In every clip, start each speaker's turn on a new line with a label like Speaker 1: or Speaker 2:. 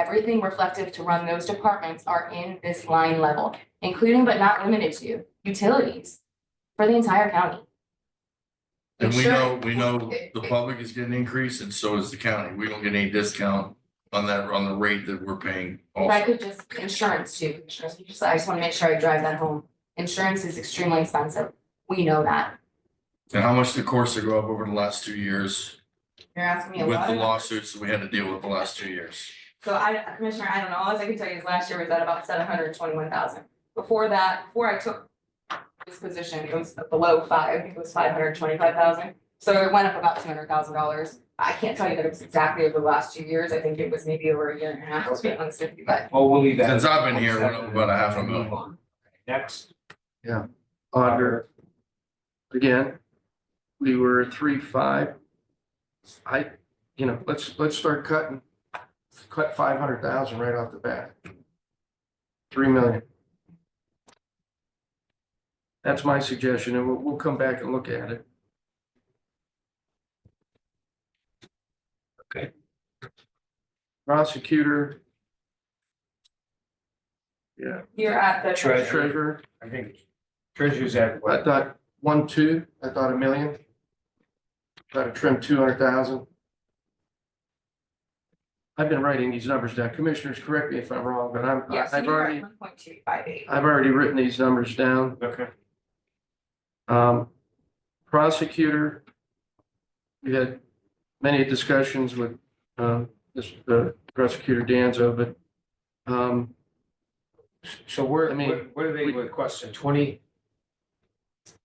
Speaker 1: everything reflective to run those departments are in this line level, including but not limited to utilities for the entire county.
Speaker 2: And we
Speaker 1: Sure.
Speaker 2: know, we know the public is getting increased and so is the county. We don't get any discount on that, on the rate that we're paying
Speaker 1: If I
Speaker 2: also.
Speaker 1: could just, insurance too, insurance, just- I just wanna make sure I drive that home. Insurance is extremely expensive. We know that.
Speaker 2: And how much the course to go up over the last two years
Speaker 1: You're asking me a
Speaker 2: with
Speaker 1: lot.
Speaker 2: the
Speaker 1: of-
Speaker 2: lawsuits that we had to deal with the last two years?
Speaker 1: So I, Commissioner, I don't know, all I can tell you is last year was at about seven hundred twenty-one thousand. Before that, before I took this position, it was below five, it was five hundred twenty-five thousand. So it went up about two hundred thousand dollars. I can't tell you that it was exactly over the last two years, I think it was maybe over a year and a half, to be honest with you, but.
Speaker 3: Oh, Well, we'll leave that.
Speaker 2: Since I've been here, we're up about a half a million.
Speaker 3: Next,
Speaker 4: auditor. Again, we were at three, five. I, you know, let's, let's start cutting, cut five hundred thousand right off the bat. Three million. That's my suggestion, and we'll, we'll come back and look at it.
Speaker 3: Okay.
Speaker 4: Prosecutor. Yeah,
Speaker 1: You're at the.
Speaker 3: treasurer,
Speaker 4: treasurer,
Speaker 3: I think treasurer's at
Speaker 4: I
Speaker 3: what,
Speaker 4: thought one, two, I thought a million. Thought I trimmed two hundred thousand. I've been writing these numbers down. Commissioners, correct me if I'm wrong, but I'm,
Speaker 1: Yes,
Speaker 4: I've
Speaker 1: you're at
Speaker 4: already,
Speaker 1: one point two five eight.
Speaker 4: I've already written these numbers down.
Speaker 3: okay,
Speaker 4: Um, prosecutor. We had many discussions with, um, this, the prosecutor Danzo, but, um,
Speaker 3: so where,
Speaker 4: I mean,
Speaker 3: what- what are they
Speaker 4: we-
Speaker 3: requesting, twenty?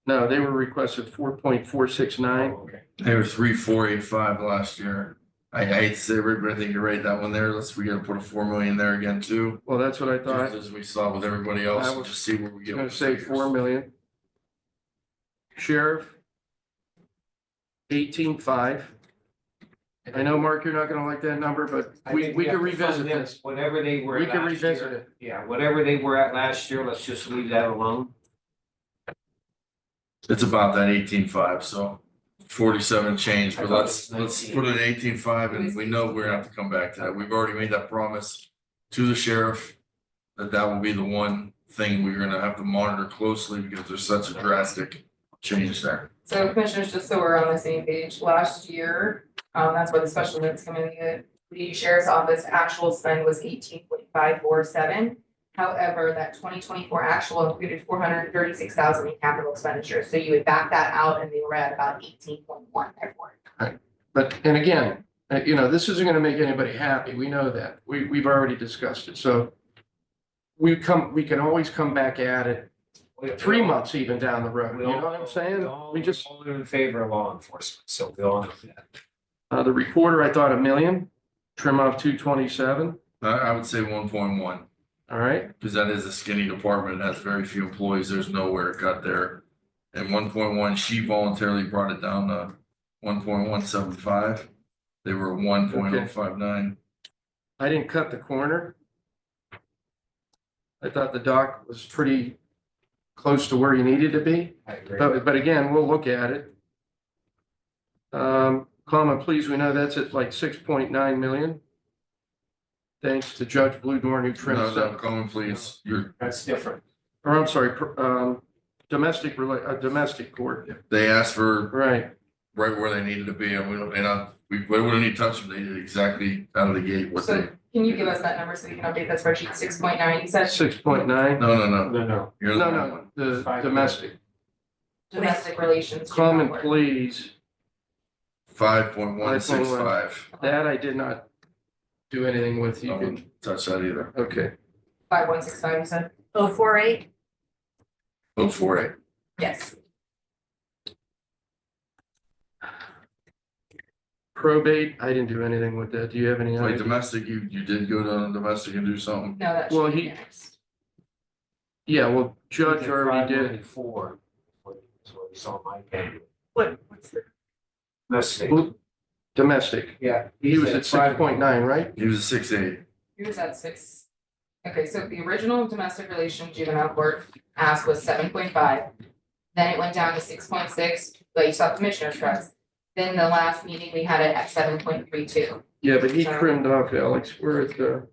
Speaker 4: no, they were requested four point four six nine.
Speaker 3: Oh, Okay.
Speaker 2: They were three, four, eight, five last year. I I hate to say it, but I think you're right, that one there, let's, we gotta put a four million there again too.
Speaker 4: Well, that's what I thought.
Speaker 2: Just as we saw with everybody else, and just see where we
Speaker 4: You're
Speaker 2: get.
Speaker 4: gonna
Speaker 2: with
Speaker 4: say
Speaker 2: figures.
Speaker 4: four million. Sheriff. Eighteen-five. I know, Mark, you're not gonna like that number, but
Speaker 3: I
Speaker 4: we,
Speaker 3: think
Speaker 4: we
Speaker 3: have
Speaker 4: can
Speaker 3: to fund
Speaker 4: revisit
Speaker 3: them
Speaker 4: this.
Speaker 3: Whatever they were
Speaker 4: We can
Speaker 3: last
Speaker 4: revisit
Speaker 3: year,
Speaker 4: it.
Speaker 3: yeah, whatever they were at last year, let's just leave that alone.
Speaker 2: It's about that eighteen five, so forty-seven change,
Speaker 3: I
Speaker 2: but
Speaker 3: thought
Speaker 2: let's,
Speaker 3: it was
Speaker 2: let's
Speaker 3: 19.
Speaker 2: put it eighteen five
Speaker 1: It
Speaker 2: and
Speaker 1: was
Speaker 2: we know we're gonna have to come back to that. We've already made that promise to the sheriff. That that will be the one thing we're gonna have to monitor closely because there's such a drastic change there.
Speaker 1: So commissioners, just so we're on the same page, last year, um, that's where the special notes come in, the, the sheriff's office actual spend was eighteen point five four seven. However, that twenty twenty-four actual included four hundred and thirty-six thousand in capital expenditures, so you would back that out and they were at about eighteen point one therefore.
Speaker 4: But, and again, uh, you know, this isn't gonna make anybody happy. We know that. We, we've already discussed it, so. We come, we can always come back at it,
Speaker 3: We-
Speaker 4: three months even down the road,
Speaker 3: we
Speaker 4: you know
Speaker 3: all-
Speaker 4: what I'm
Speaker 3: we
Speaker 4: saying?
Speaker 3: all-
Speaker 4: We just,
Speaker 3: all in favor of law enforcement, so we all know that.
Speaker 4: uh, the recorder, I thought a million, trim off two twenty-seven,
Speaker 2: I, I would say one point one,
Speaker 4: all right?
Speaker 2: because that is a skinny department, it has very few employees, there's nowhere to cut there. And one point one, she voluntarily brought it down to one point one seven five. They were one point oh five nine.
Speaker 4: I didn't cut the corner. I thought the dock was pretty close to where you needed to be,
Speaker 3: I agree.
Speaker 4: but, but again, we'll look at it. Um, comma, please, we know that's at like six point nine million. Thanks to Judge Blue Dorn who trimmed
Speaker 2: No, no,
Speaker 4: that,
Speaker 2: come on, please, you're
Speaker 3: That's different.
Speaker 4: or I'm sorry, pr- um, domestic, rela- uh, domestic court,
Speaker 2: They asked for
Speaker 4: right,
Speaker 2: right where they needed to be, and we don't, and I, we, we wouldn't need to touch them, they did exactly out of the gate what they,
Speaker 1: So can you give us that number so we can update that spreadsheet, six point nine, you said
Speaker 4: six point nine,
Speaker 2: no, no, no,
Speaker 3: No, no.
Speaker 2: you're
Speaker 4: no,
Speaker 2: the wrong one.
Speaker 4: no, the domestic.
Speaker 1: domestic relations.
Speaker 4: Common
Speaker 1: report.
Speaker 4: please,
Speaker 2: Five point one six five,
Speaker 4: that I did not do anything with, you
Speaker 2: I
Speaker 4: can,
Speaker 2: wouldn't touch that either,
Speaker 4: okay,
Speaker 1: Five one six five, you said?
Speaker 5: Oh, four eight,
Speaker 2: look for it.
Speaker 1: Yes.
Speaker 4: probate, I didn't do anything with that, do you have any?
Speaker 2: Wait,
Speaker 4: idea?
Speaker 2: domestic, you, you did go down domestic and do something,
Speaker 1: No, that
Speaker 4: Well,
Speaker 1: should be
Speaker 4: he-
Speaker 1: next.
Speaker 4: Yeah, well, Judge already did.
Speaker 3: Four, what you saw in my opinion.
Speaker 5: what, what's the,
Speaker 3: Let's see.
Speaker 4: Well, Domestic,
Speaker 3: Yeah.
Speaker 4: he was at six point nine, right?
Speaker 2: he was a six eight,
Speaker 1: He was at six. Okay, so the original domestic relation juvenile court ask was seven point five. Then it went down to six point six, but you saw commissioner's trust. Then the last meeting, we had it at seven point three two.
Speaker 4: Yeah, but he trimmed off, Alex, uh, we're at the